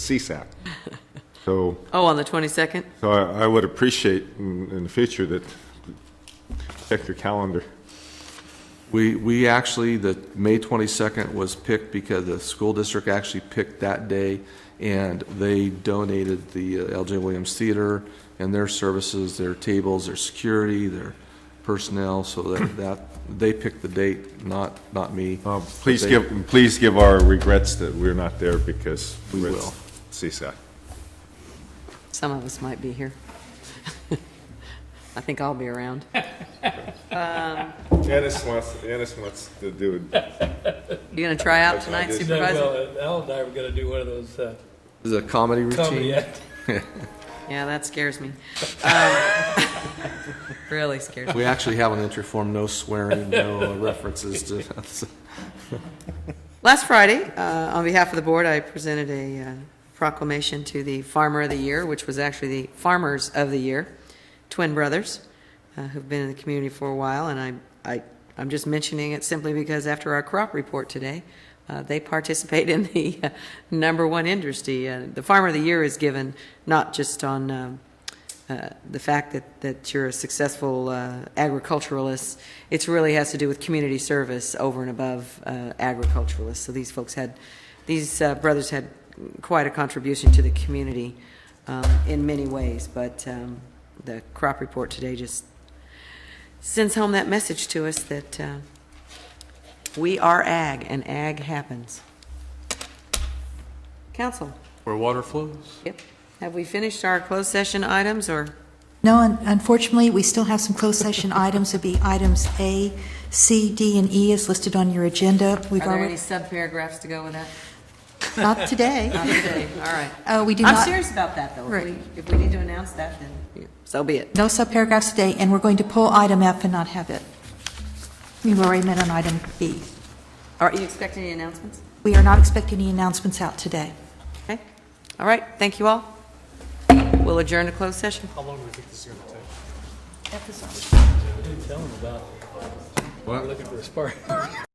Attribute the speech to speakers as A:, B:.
A: CSAC. So,
B: Oh, on the 22nd?
A: so I I would appreciate in in the future that, check your calendar.
C: We, we actually, the May 22nd was picked because the school district actually picked that day, and they donated the uh, LJ Williams Theater and their services, their tables, their security, their personnel, so that, that, they picked the date, not, not me.
A: Uh, Please
C: But they-
A: give, please give our regrets that we're not there because.
C: We
A: we're at
C: will.
A: CSAC.
B: Some of us might be here. I think I'll be around.
A: Ennis wants, Ennis wants to do it.
B: You gonna try out
A: I
B: tonight,
A: did.
D: No,
B: Supervisor?
D: well, Al and I were gonna do one of those uh,
C: Is it a comedy routine?
D: comedy act.
B: Yeah, that scares me. Um, Really scares me.
C: We actually have an entry form, no swearing, no uh, references to,
B: Last Friday, uh, on behalf of the board, I presented a uh, proclamation to the Farmer of the Year, which was actually the Farmers of the Year, twin brothers, uh, who've been in the community for a while, and I, I, I'm just mentioning it simply because after our crop report today, uh, they participate in the uh, number one industry. Uh, The Farmer of the Year is given not just on um, uh, the fact that, that you're a successful uh, agriculturalist, it really has to do with community service over and above uh, agriculturalists. So these folks had, these uh, brothers had quite a contribution to the community um, in many ways, but um, the crop report today just sends home that message to us that uh, we are ag, and ag happens. Council?
C: where water flows.
B: Yep. Have we finished our closed session items, or?
E: No, un- unfortunately, we still have some closed session items. It'd be items A, C, D, and E is listed on your agenda. We've
B: Are there any
E: already,
B: subparagraphs to go with that?
E: not today.
B: Not today, all right.
E: Uh, We do
B: I'm
E: not,
B: serious about that, though. If
E: Right.
B: we, if we need to announce that, then so be it.
E: no subparagraphs today, and we're going to pull item F and not have it. We've already met on item B.
B: Are you expecting any announcements?
E: We are not expecting any announcements out today.
B: Okay, all right, thank you all. We'll adjourn to closed session.
D: How long do we think this is gonna take? I didn't tell him about, we're looking for a spark.